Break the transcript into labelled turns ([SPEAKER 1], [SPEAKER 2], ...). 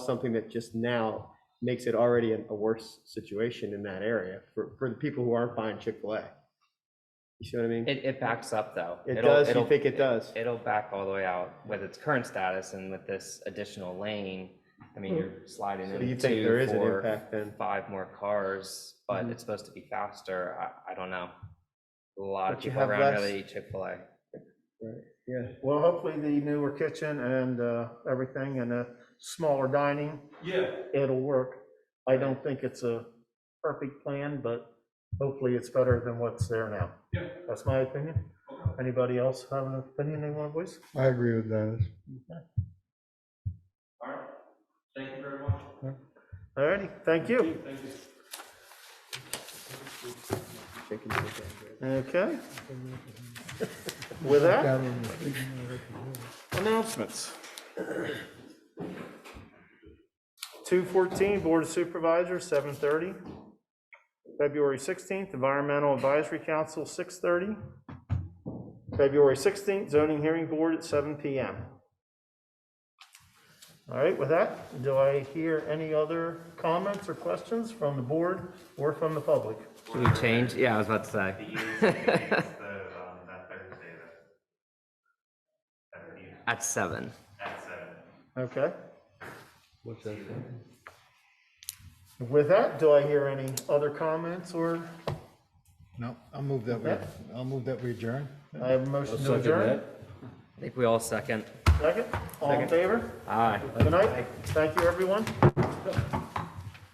[SPEAKER 1] something that just now makes it already a a worse situation in that area for, for the people who aren't buying Chick-fil-A. You see what I mean?
[SPEAKER 2] It, it backs up though.
[SPEAKER 1] It
[SPEAKER 2] It'll-
[SPEAKER 1] does, you
[SPEAKER 2] it'll-
[SPEAKER 1] think it does?
[SPEAKER 2] It'll back all the way out with its current status and with this additional lane. I mean, you're sliding
[SPEAKER 1] Hmm. So
[SPEAKER 2] in
[SPEAKER 1] you think there
[SPEAKER 2] two,
[SPEAKER 1] is an
[SPEAKER 2] four,
[SPEAKER 1] impact then?
[SPEAKER 2] five more cars, but
[SPEAKER 1] Mhm.
[SPEAKER 2] it's supposed to be faster. I, I don't know. A lot of
[SPEAKER 1] But you
[SPEAKER 2] people
[SPEAKER 1] have
[SPEAKER 2] around
[SPEAKER 1] less-
[SPEAKER 2] really eat Chick-fil-A.
[SPEAKER 1] Yeah.
[SPEAKER 3] Well, hopefully the newer kitchen and uh, everything and the smaller dining,
[SPEAKER 4] Yeah,
[SPEAKER 3] it'll work. I don't think it's a perfect plan, but hopefully it's better than what's there now.
[SPEAKER 4] yeah.
[SPEAKER 3] That's my opinion.
[SPEAKER 4] Okay.
[SPEAKER 3] Anybody else have an opinion they want to voice?
[SPEAKER 5] I agree with Dennis.
[SPEAKER 4] All right. Thank you very much.
[SPEAKER 3] All righty, thank you.
[SPEAKER 4] Thank you.
[SPEAKER 3] Okay. With that, announcements. 214, Board of Supervisors, 7:30. February 16th, Environmental Advisory Council, 6:30. February 16th, Zoning Hearing Board at 7 PM. All right, with that, do I hear any other comments or questions from the board or from the public?
[SPEAKER 2] Should we change? Yeah, I was about to
[SPEAKER 6] The
[SPEAKER 2] say.
[SPEAKER 6] youth meeting is the, um, that Thursday, the seventeenth
[SPEAKER 2] At seven.
[SPEAKER 6] at seven.
[SPEAKER 3] Okay.
[SPEAKER 5] What's that?
[SPEAKER 3] With that, do I hear any other comments or,
[SPEAKER 5] No, I'll move that, we.
[SPEAKER 3] Yeah.
[SPEAKER 5] I'll move that we adjourn.
[SPEAKER 3] I have a motion to adjourn?
[SPEAKER 2] I think we all second.
[SPEAKER 3] Second? All in favor?
[SPEAKER 2] Aye.
[SPEAKER 3] Good night. Thank you, everyone.